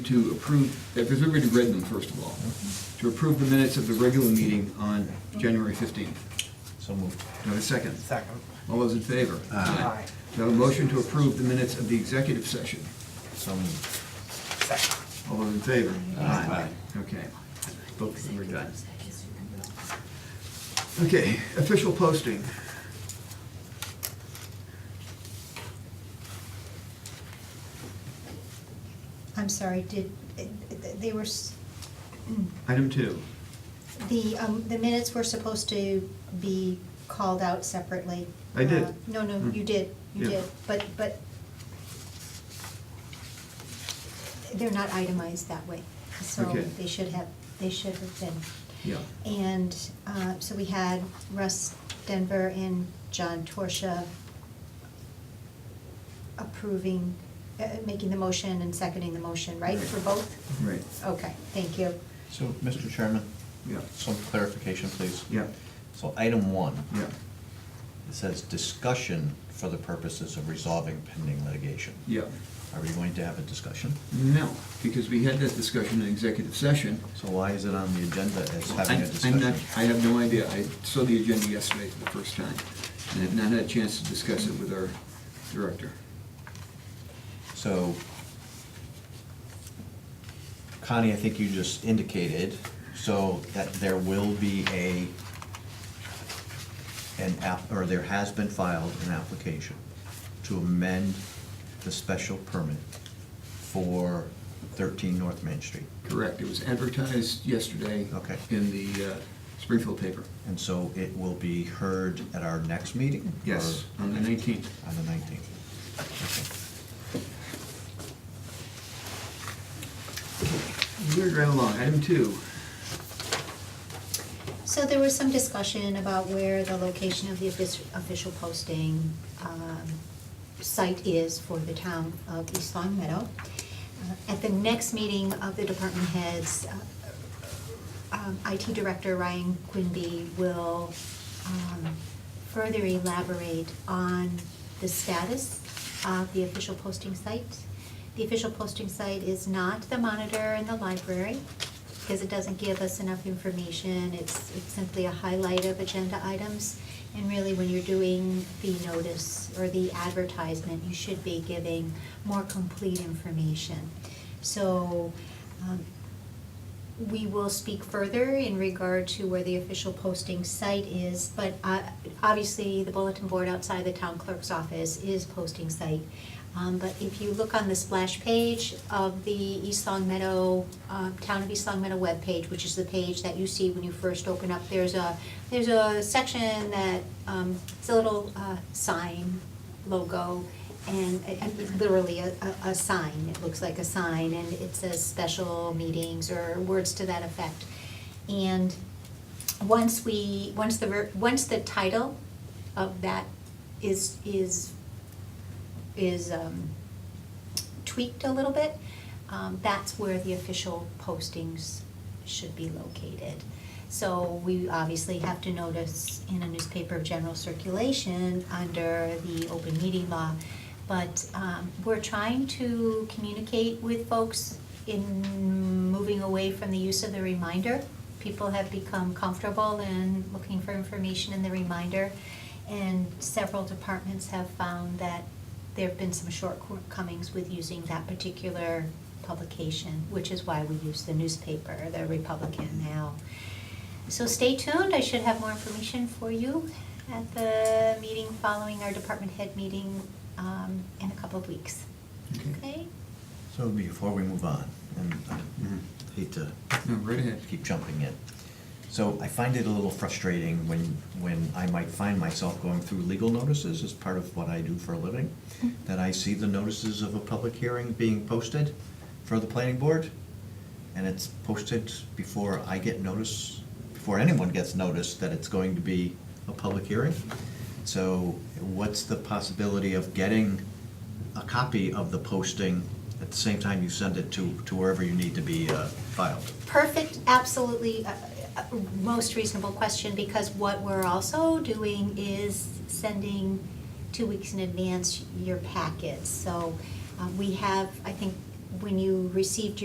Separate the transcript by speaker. Speaker 1: to approve, if there's already read them, first of all, to approve the minutes of the regular meeting on January 15th. Do
Speaker 2: So moved.
Speaker 1: I have a second?
Speaker 3: Second.
Speaker 1: All those in favor?
Speaker 3: Aye.
Speaker 1: Do I have a motion to approve the minutes of the executive session?
Speaker 2: So moved.
Speaker 3: Second.
Speaker 1: All those in favor?
Speaker 2: Aye.
Speaker 1: Okay. Both of them are done. Okay, official posting.
Speaker 4: I'm sorry, did, they were, s-
Speaker 1: Item two.
Speaker 4: the, um, the minutes were supposed to be called out separately.
Speaker 1: I did. Mm.
Speaker 4: Uh, No, no, you did, you
Speaker 1: Yeah.
Speaker 4: did, but, but they're not itemized that way, so
Speaker 1: Okay.
Speaker 4: they should have, they should have been.
Speaker 1: Yeah.
Speaker 4: And uh, so we had Russ Denver and John Torsia approving, uh, making the motion and seconding the motion, right, for both?
Speaker 1: Right.
Speaker 4: Okay, thank you.
Speaker 2: So, Mr. Chairman?
Speaker 1: Yeah.
Speaker 2: Some clarification, please.
Speaker 1: Yeah.
Speaker 2: So item one.
Speaker 1: Yeah.
Speaker 2: It says discussion for the purposes of resolving pending litigation.
Speaker 1: Yeah.
Speaker 2: Are we going to have a discussion?
Speaker 1: No, because we had that discussion in executive session.
Speaker 2: So why is it on the agenda as having a
Speaker 1: I- I'm
Speaker 2: discussion?
Speaker 1: not, I have no idea. I saw the agenda yesterday for the first time and have not had a chance to discuss it with our director.
Speaker 2: So, Connie, I think you just indicated, so that there will be a, an app, or there has been filed an application to amend the special permit for thirteen North Main Street.
Speaker 1: Correct. It was advertised yesterday.
Speaker 2: Okay.
Speaker 1: In the uh, Springfield paper.
Speaker 2: And so it will be heard at our next meeting?
Speaker 1: Yes,
Speaker 2: or
Speaker 1: on the 19th.
Speaker 2: On the nineteenth.
Speaker 1: Moving right along. Item two.
Speaker 4: So there was some discussion about where the location of the offic- official posting um, site is for the town of East Long Meadow. Uh, At the next meeting of the department heads, uh, um, IT Director Ryan Quimby will um, further elaborate on the status of the official posting site. The official posting site is not the monitor in the library, because it doesn't give us enough information. It's, it's simply a highlight of agenda items. And really, when you're doing the notice or the advertisement, you should be giving more complete information. So, um, we will speak further in regard to where the official posting site is, but uh, obviously, the bulletin board outside the town clerk's office is posting site. Um, But if you look on the splash page of the East Long Meadow, uh, Town of East Long Meadow webpage, which is the page that you see when you first open up, there's a, there's a section that, um, it's a little uh, sign logo, and it- it's literally a, a, a sign, it looks like a sign, and it says special meetings or words to that effect. And once we, once the, ver- once the title of that is, is, is um, tweaked a little bit, um, that's where the official postings should be located. So we obviously have to notice in a newspaper of general circulation under the open meeting law. But um, we're trying to communicate with folks in moving away from the use of the reminder. People have become comfortable in looking for information in the reminder. And several departments have found that there have been some shortcomings with using that particular publication, which is why we use the newspaper, the Republican now. So stay tuned, I should have more information for you at the meeting following our department head meeting um, in a couple of weeks. Okay?
Speaker 2: So before we move on, and I
Speaker 1: Mhm.
Speaker 2: hate to
Speaker 1: No, right ahead.
Speaker 2: keep jumping in. So I find it a little frustrating when, when I might find myself going through legal notices as part of what I do for a living, that I see the notices of a public hearing being posted for the planning board, and it's posted before I get notice, before anyone gets notice that it's going to be a public hearing. So what's the possibility of getting a copy of the posting at the same time you send it to, to wherever you need to be uh, filed?
Speaker 4: perfect, absolutely, uh, uh, most reasonable question, because what we're also doing is sending two weeks in advance your packets. So uh, we have, I think, when you received your.